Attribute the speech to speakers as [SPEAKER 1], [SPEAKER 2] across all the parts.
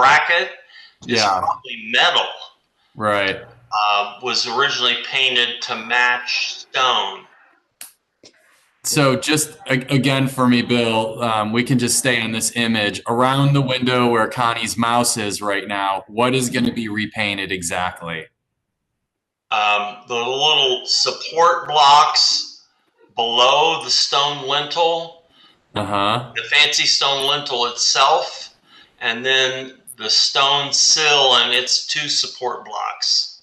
[SPEAKER 1] bracket is
[SPEAKER 2] Yeah.
[SPEAKER 1] probably metal.
[SPEAKER 2] Right.
[SPEAKER 1] Uh, was originally painted to match stone.
[SPEAKER 2] So just a- again for me, Bill, um, we can just stay on this image around the window where Connie's mouse is right now. What is going to be repainted exactly?
[SPEAKER 1] Um, the little support blocks below the stone lintel,
[SPEAKER 2] Uh huh.
[SPEAKER 1] the fancy stone lintel itself, and then the stone sill and its two support blocks.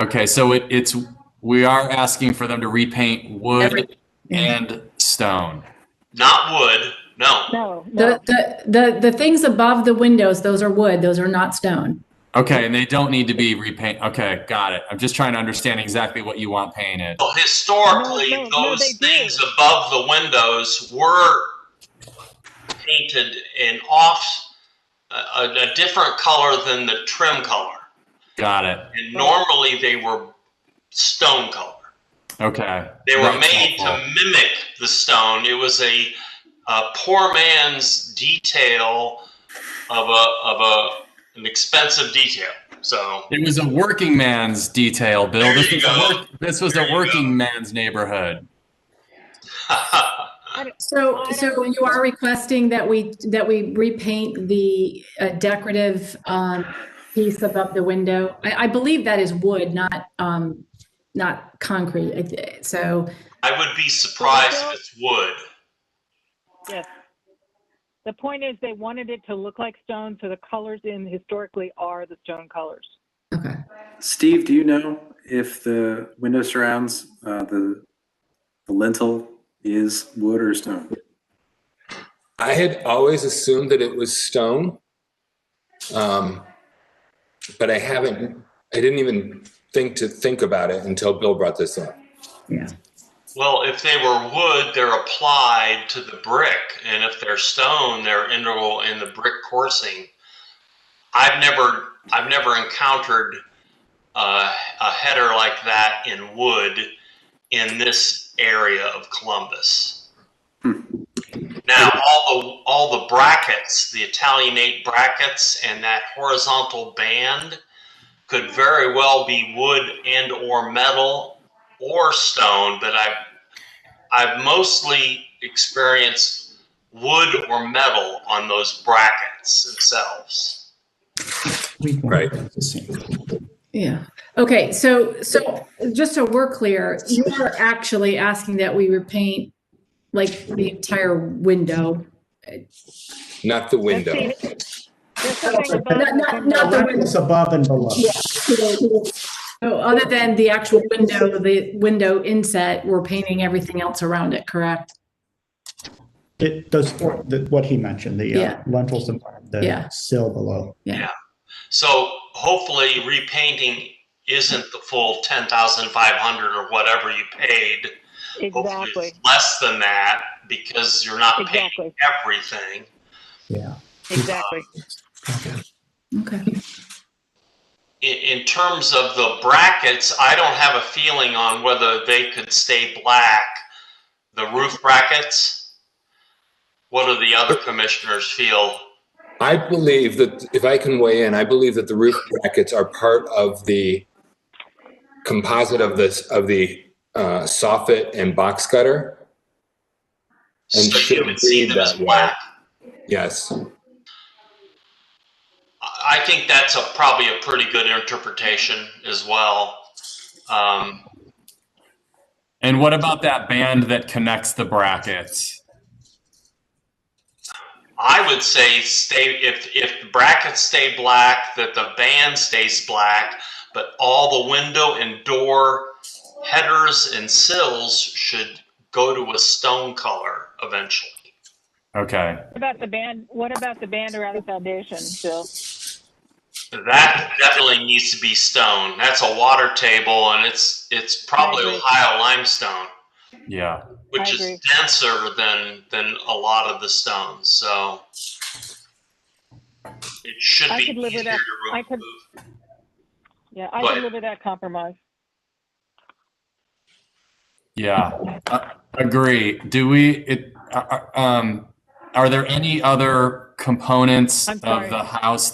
[SPEAKER 2] Okay. So it, it's we are asking for them to repaint wood and stone.
[SPEAKER 1] Not wood, no.
[SPEAKER 3] No, no.
[SPEAKER 4] The, the, the, the things above the windows, those are wood, those are not stone.
[SPEAKER 2] Okay, and they don't need to be repaint. Okay, got it. I'm just trying to understand exactly what you want painted.
[SPEAKER 1] Well, historically,
[SPEAKER 3] No, no, no,
[SPEAKER 1] those
[SPEAKER 3] they do.
[SPEAKER 1] things above the windows were painted in off a, a, a different color than the trim color,
[SPEAKER 2] Got it.
[SPEAKER 1] and normally they were stone color.
[SPEAKER 2] Okay.
[SPEAKER 1] They were
[SPEAKER 2] That's
[SPEAKER 1] made to
[SPEAKER 2] helpful.
[SPEAKER 1] mimic the stone. It was a, a poor man's detail of a of a an expensive detail. So
[SPEAKER 2] It was a working man's detail, Bill.
[SPEAKER 1] There
[SPEAKER 2] this,
[SPEAKER 1] you
[SPEAKER 2] was a,
[SPEAKER 1] go.
[SPEAKER 2] work, this was
[SPEAKER 1] There
[SPEAKER 2] a
[SPEAKER 1] you
[SPEAKER 2] working man's neighborhood.
[SPEAKER 4] So, so you are requesting that we, that we repaint the uh, decorative, um, piece above the window? I, I believe that is wood, not, um, not concrete. I th- So,
[SPEAKER 1] I would be surprised if it's wood.
[SPEAKER 3] The point is, they wanted it to look like stone, so the colors in historically are the stone colors.
[SPEAKER 4] okay.
[SPEAKER 5] Steve, do you know if the window surrounds, uh, the, the lintel is wood or stone?
[SPEAKER 6] I had always assumed that it was stone. Um, but I haven't, I didn't even think to think about it until Bill brought this up.
[SPEAKER 1] Well, if they were wood, they're applied to the brick, and if they're stone, they're integral in the brick coursing. I've never, I've never encountered uh, a header like that in wood in this area of Columbus. Now, all the all the brackets, the Italianate brackets, and that horizontal band could very well be wood and or metal or stone, but I've I've mostly experienced wood or metal on those brackets themselves.
[SPEAKER 6] Right.
[SPEAKER 4] Yeah. Okay, so, so just so we're clear, you are actually asking that we repaint like the entire window?
[SPEAKER 6] Not the
[SPEAKER 3] That's
[SPEAKER 6] window.
[SPEAKER 3] the- There's something above
[SPEAKER 4] Not, not,
[SPEAKER 3] the
[SPEAKER 4] not the window.
[SPEAKER 7] It's above and below.
[SPEAKER 4] Yeah. So other than the actual window, the window inset, we're painting everything else around it, correct?
[SPEAKER 7] It does, the- what he mentioned, the
[SPEAKER 4] Yeah.
[SPEAKER 7] uh, lentils above,
[SPEAKER 4] Yeah.
[SPEAKER 7] the sill below.
[SPEAKER 1] So hopefully repainting isn't the full ten thousand five hundred or whatever you paid. Hopefully
[SPEAKER 3] Exactly,
[SPEAKER 1] it's less than that because you're not paying
[SPEAKER 3] exactly,
[SPEAKER 1] everything.
[SPEAKER 7] Yeah.
[SPEAKER 3] exactly.
[SPEAKER 4] Okay.
[SPEAKER 1] In, in terms of the brackets, I don't have a feeling on whether they could stay black. The roof brackets. What do the other commissioners feel?
[SPEAKER 6] I believe that, if I can weigh in, I believe that the roof brackets are part of the composite of this, of the uh, soffit and box gutter. And
[SPEAKER 1] So you
[SPEAKER 6] should
[SPEAKER 1] would see
[SPEAKER 6] be
[SPEAKER 1] them as
[SPEAKER 6] that way.
[SPEAKER 1] black.
[SPEAKER 6] Yes.
[SPEAKER 1] I I think that's a, probably a pretty good interpretation as well. Um,
[SPEAKER 2] And what about that band that connects the brackets?
[SPEAKER 1] I would say stay if if the brackets stay black, that the band stays black, but all the window and door headers and sills should go to a stone color eventually.
[SPEAKER 2] Okay.
[SPEAKER 3] What about the band, what about the band around the foundation, Bill?
[SPEAKER 1] That definitely needs to be stone. That's a water table, and it's it's probably
[SPEAKER 3] I agree.
[SPEAKER 1] Ohio limestone,
[SPEAKER 2] Yeah.
[SPEAKER 1] which
[SPEAKER 3] I
[SPEAKER 1] is
[SPEAKER 3] agree.
[SPEAKER 1] denser than than a lot of the stones. So it should
[SPEAKER 3] I
[SPEAKER 1] be
[SPEAKER 3] could live
[SPEAKER 1] easier to
[SPEAKER 3] with that. I
[SPEAKER 1] remove.
[SPEAKER 3] could- Yeah, I
[SPEAKER 1] Go
[SPEAKER 3] can
[SPEAKER 1] ahead.
[SPEAKER 3] live with that compromise.
[SPEAKER 2] Yeah. Uh, agree. Do we, uh, it, uh, um, are there any other components
[SPEAKER 3] I'm
[SPEAKER 2] of
[SPEAKER 3] sorry.
[SPEAKER 2] the house